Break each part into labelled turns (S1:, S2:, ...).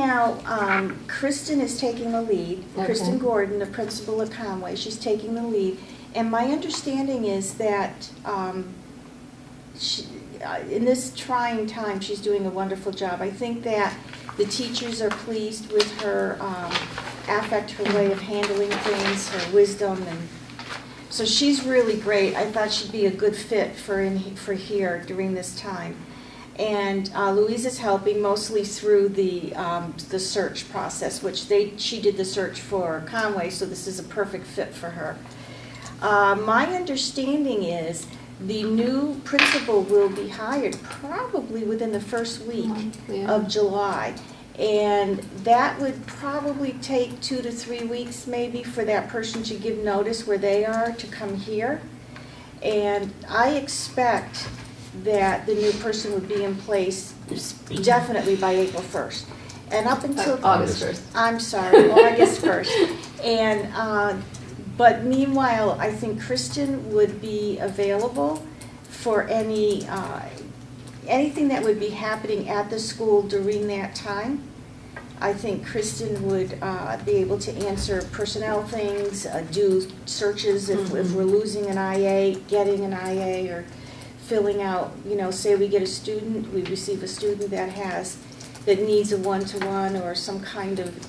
S1: now, um, Kristen is taking the lead, Kristen
S2: Okay.
S1: Gordon, the principal of Conway, she's taking the lead. And my understanding is that um, she- uh, in this trying time, she's doing a wonderful job. I think that the teachers are pleased with her um, affect, her way of handling things, her wisdom, and so she's really great. I thought she'd be a good fit for in, for here during this time. And uh, Louise is helping mostly through the um, the search process, which they she did the search for Conway, so this is a perfect fit for her. Uh, my understanding is the new principal will be hired probably within the first week
S2: Yeah.
S1: of July. And that would probably take two to three weeks maybe for that person to give notice where they are to come here. And I expect that the new person would be in place definitely by April first. And up until.
S2: Uh, August first.
S1: I'm sorry, August first. And, uh, but meanwhile, I think Kristen would be available for any, uh, anything that would be happening at the school during that time. I think Kristen would uh, be able to answer personnel things, uh, do searches if, if we're losing an IA, getting an IA, or filling out, you know, say we get a student, we receive a student that has, that needs a one-to-one or some kind of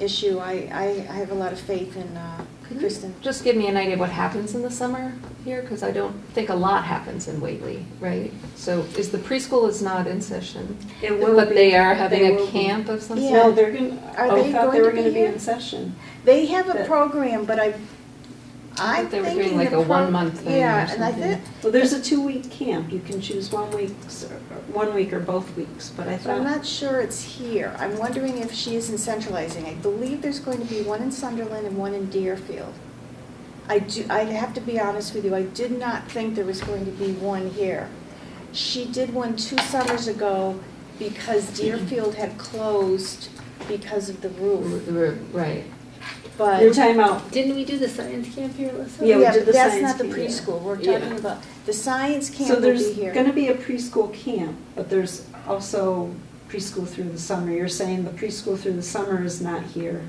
S1: issue. I, I, I have a lot of faith in uh,
S2: Could you
S1: Kristen.
S2: Just give me an idea of what happens in the summer here, because I don't think a lot happens in Whately, right? So is the preschool is not in session,
S3: It will
S2: but
S3: be-
S2: they are having
S3: will
S2: a
S3: be.
S2: camp of some
S1: Yeah.
S3: No,
S2: sort?
S3: they're going,
S1: Are they
S3: I thought
S1: going
S3: they
S1: to
S3: were
S1: be
S3: going to be
S1: here?
S3: in session.
S1: They have a
S3: But-
S1: program, but I,
S2: I
S1: I'm
S2: thought they were
S1: thinking
S2: doing
S1: the
S2: like a
S1: pro-
S2: one-month thing or
S1: Yeah, and I
S2: something.
S1: think,
S3: Well, there's a two-week camp. You can choose one week's, or- or one week or both weeks, but I
S1: But I'm
S3: thought,
S1: not sure it's here. I'm wondering if she isn't centralizing. I believe there's going to be one in Sunderland and one in Deerfield. I do, I have to be honest with you, I did not think there was going to be one here. She did one two summers ago because Deerfield had closed because of the roof,
S2: R- r- Right.
S1: but.
S3: your timeout,
S4: Didn't we do the science camp here, Alyssa?
S3: Yeah, we
S1: Yeah,
S3: did
S1: but
S3: the
S1: that's
S3: science
S1: not the
S3: camp, yeah.
S1: preschool. We're
S3: Yeah.
S1: talking about, the science
S3: so
S1: camp will
S3: there's
S1: be here.
S3: going to be a preschool camp, but there's also preschool through the summer. You're saying the preschool through the summer is not here.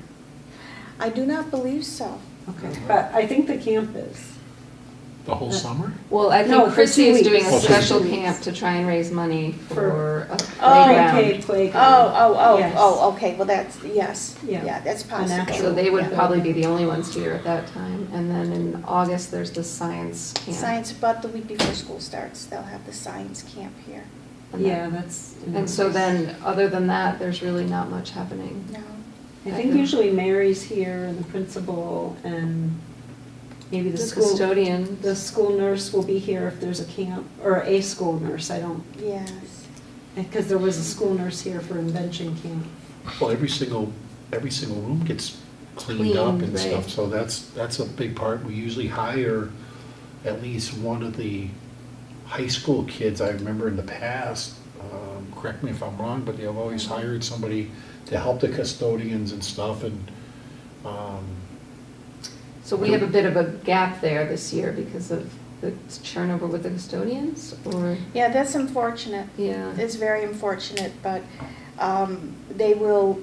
S1: I do not believe so.
S3: Okay,
S2: Uh-huh.
S3: but I think the camp is.
S5: The whole summer?
S2: Well, I
S3: No,
S2: think
S3: for
S2: Christie
S3: two
S2: is doing
S5: weeks.
S2: a
S5: Oh, for
S2: special
S3: two weeks.
S2: camp to try and raise money
S3: For-
S2: for a
S1: Oh,
S3: Pre-K
S2: playground.
S1: Oh,
S3: playground.
S1: oh, oh,
S3: Yes.
S1: oh, okay, well, that's, yes,
S3: Yeah.
S1: yeah, that's
S3: An
S1: possible.
S3: actual-
S2: So they would
S3: Yeah.
S2: probably be the only ones here at that time. And then in August, there's the science camp.
S1: Science, but the week before school starts, they'll have the science camp here.
S2: And that-
S3: Yeah, that's.
S2: And so then, other than that, there's really not much happening.
S1: No,
S3: I think usually Mary's here and the principal and maybe
S2: The
S3: the school.
S2: custodian,
S3: The school nurse will be here if there's a camp, or a school nurse, I don't,
S1: yes.
S3: because there was a school nurse here for invention camp.
S5: Well, every single, every single room gets cleaned up
S2: Cleaned,
S5: and
S2: right.
S5: stuff, so that's, that's a big part. We usually hire at least one of the high school kids. I remember in the past, um, correct me if I'm wrong, but they've always hired somebody to help the custodians and stuff and, um,
S2: so we have a bit of a gap there this year because of the turnover with the custodians, or,
S1: Yeah, that's unfortunate.
S2: yeah.
S1: It's very unfortunate, but um, they will,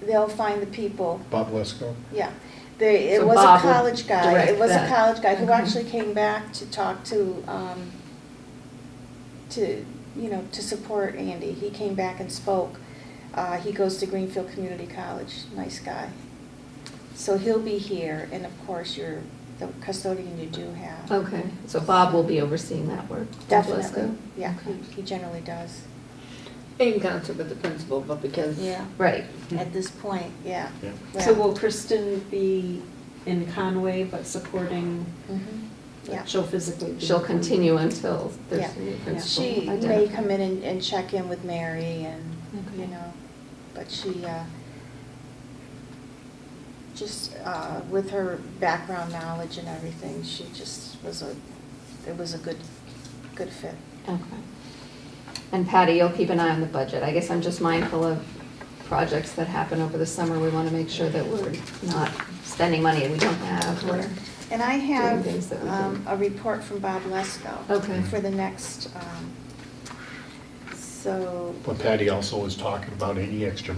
S1: they'll find the people,
S5: Bob Lesko.
S1: yeah. They, it
S2: So
S1: was a
S2: Bob would
S1: college guy, it
S2: direct
S1: was a
S2: that. Mm-hmm.
S1: college guy who
S2: Okay.
S1: actually came back to talk to, um, to, you know, to support Andy. He came back and spoke. Uh, He goes to Greenfield Community College, nice guy. So he'll be here, and of course, your, the custodian you do have.
S2: Okay, so Bob will be overseeing that work.
S1: Definitely, yeah,
S2: Okay.
S1: he- he generally does,
S4: In concert with the principal, but because.
S1: yeah,
S2: Right,
S1: at this point, yeah.
S5: Yeah.
S3: So
S1: Yeah.
S3: will Kristen be in Conway but supporting,
S1: Mhm, Yeah.
S3: she'll physically be?
S2: she'll continue until there's
S1: Yeah.
S2: a new principal.
S1: She may
S2: identified.
S1: come in and, and check in with Mary and, you
S2: Okay.
S1: know, but she, uh, just, uh, with her background knowledge and everything, she just was a, it was a good, good fit.
S2: Okay. And Patty, you'll keep an eye on the budget. I guess I'm just mindful of projects that happen over the summer. We want to make sure that we're not spending money we don't have, or,
S1: And I have,
S2: Doing things that we
S1: um,
S2: didn't.
S1: a report from Bob Lesko.
S2: Okay.
S1: For the next, um, so.
S5: But Patty also was talking about any extra